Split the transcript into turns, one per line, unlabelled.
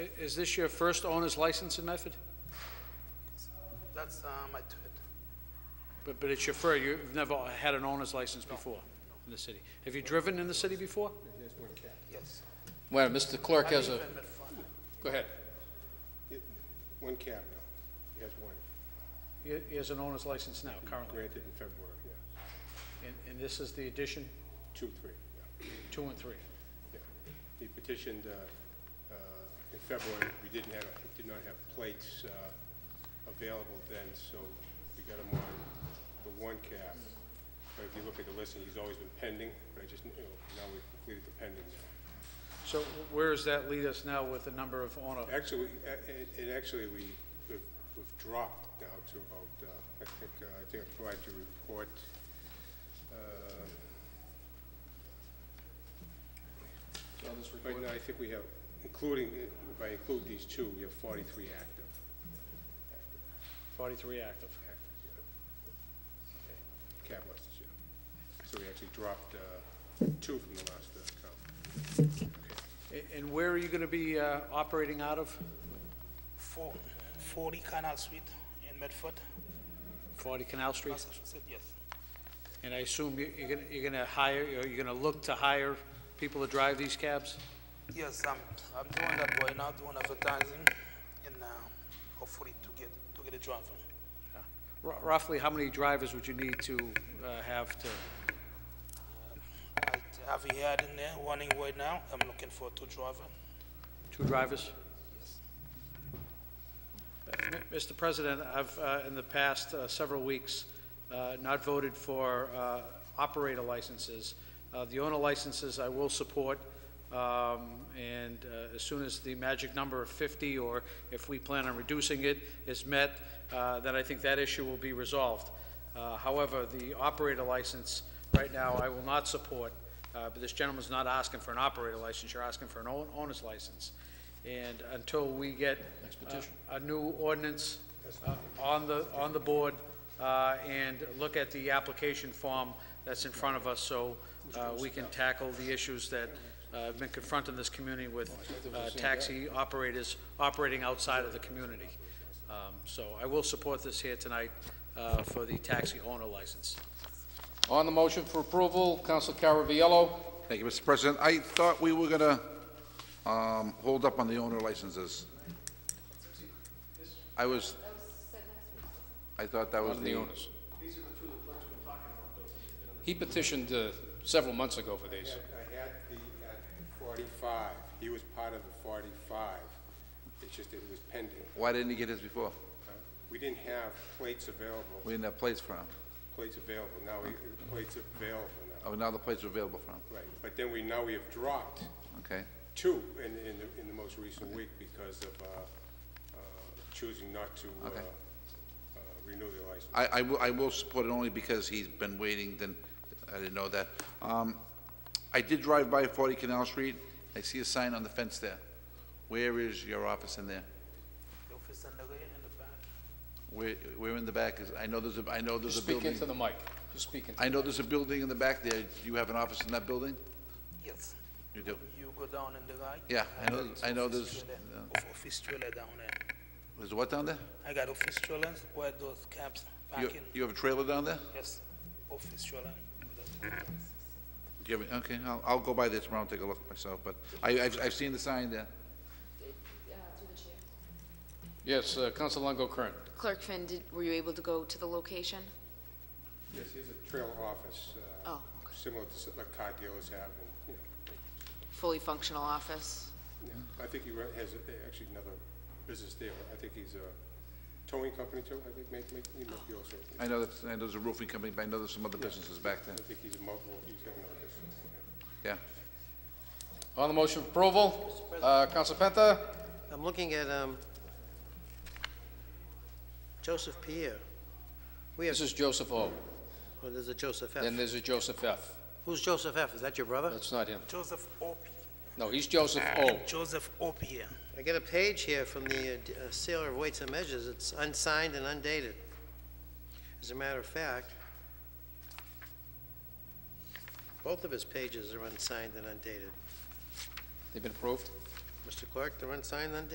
Is this your first owner's license in Medford?
That's uh, my third.
But, but it's your first, you've never had an owner's license before in the city. Have you driven in the city before?
Yes.
Well, Mr. Clerk has a,
Even Medford.
go ahead.
It- One cab now. He has one
He he has an owner's license now, currently.
granted in February, yeah.
And, and this is the addition,
Two, three, yeah,
two and three.
yeah. He petitioned uh, uh, in February. We didn't have, he did not have plates uh, available then, so we got him on the one cab. But if you look at the listing, he's always been pending, but I just, you know, now we've completed the pending now.
So where does that lead us now with the number of owner?
Actually, we- a- and and actually, we, we've we've dropped now to about, uh, I think, uh, I think I provided you a report. uh, Right now, I think we have, including, if I include these two, we have forty-three active.
Forty-three active.
active, yeah. Cab licenses, yeah. So we actually dropped uh, two from the last uh, count.
A- And where are you gonna be, uh, operating out of?
Four, 40 Canal Street in Medford,
Forty Canal Street?
Massachusetts, yes.
And I assume you- you're gonna, you're gonna hire, or you're gonna look to hire people to drive these cabs?
Yes, I'm, I'm doing that right now, doing advertising, and uh, hopefully to get, to get a driver.
R- Roughly, how many drivers would you need to, uh, have to,
I have a yard in there running right now, I'm looking for two driver.
two drivers? Uh, M- Mr. President, I've, uh, in the past uh, several weeks, uh, not voted for uh, operator licenses. Uh, The owner licenses I will support, um, and uh, as soon as the magic number of 50, or if we plan on reducing it, is met, uh, then I think that issue will be resolved. Uh, However, the operator license, right now, I will not support, uh, but this gentleman's not asking for an operator license, you're asking for an own- owner's license. And until we get uh, a new ordinance uh, on the, on the board, uh, and look at the application form that's in front of us, so uh, we can tackle the issues that uh, have been confronting this community with uh, taxi operators operating outside of the community. Um, So I will support this here tonight uh, for the taxi owner license.
On the motion for approval, Counsel Caraviallo.
Thank you, Mr. President. I thought we were gonna, um, hold up on the owner licenses. I was, I thought that was
On the
the,
owners. He petitioned uh, several months ago for these.
I had the, at forty-five, he was part of the forty-five, it's just that it was pending.
why didn't he get his before?
Uh, We didn't have plates available,
We didn't have plates for him.
plates available, now we, plates available now,
Oh, now the plates are available for him,
right. But then we, now we have dropped
okay?
two in, in, the- in the most recent week because of, uh, uh, choosing not to, uh,
Okay.
uh, renew their license.
I, I will, I will support it only because he's been waiting, then, I didn't know that. Um, I did drive by forty Canal Street, I see a sign on the fence there. Where is your office in there?
The office in the rear, in the back.
Where, where in the back is, I know there's a, I know there's a
Speak
building.
into the mic. Just speak into,
I know there's a building in the back there. Do you have an office in that building?
Yes,
You do.
you go down in the right.
Yeah, I know-
got
I know
office
this-
trailer-
yeah.
of- Office trailer down there.
There's what down there?
I got office trailers where those cabs
You,
parking.
you have a trailer down there?
Yes, office trailer.
Do you have, a- okay, I'll, I'll go by there tomorrow and take a look myself, but I, I've, I've seen the sign there.
yes, uh, Counsel Longo Kern.
Clerk Finn, did, were you able to go to the location?
Yes, he has a trailer office, uh,
Oh, okay.
similar to s- like car dealers have, and, you know,
Fully functional office?
Yeah, I think he re- has uh, actually another business there. I think he's a towing company too, I think, make, make, he might
Oh.
be also.
I know that, I know there's a roofing company, but I know there's some other businesses back there.
I think he's multiple, he's got another business.
Yeah.
On the motion for approval, uh, Counsel Penta.
I'm looking at um, Joseph Pierre. We have,
This is Joseph O.
oh, there's a Joseph F.
Then there's a Joseph F.
Who's Joseph F.? Is that your brother?
That's not him.
Joseph Opie.
No, he's Joseph O.
Joseph Opie.
I get a page here from the uh, d- uh, Sailor of Weights and Measures. It's unsigned and undated. As a matter of fact, both of his pages are unsigned and undated.
They've been approved?
Mr. Clerk, they're unsigned and undated.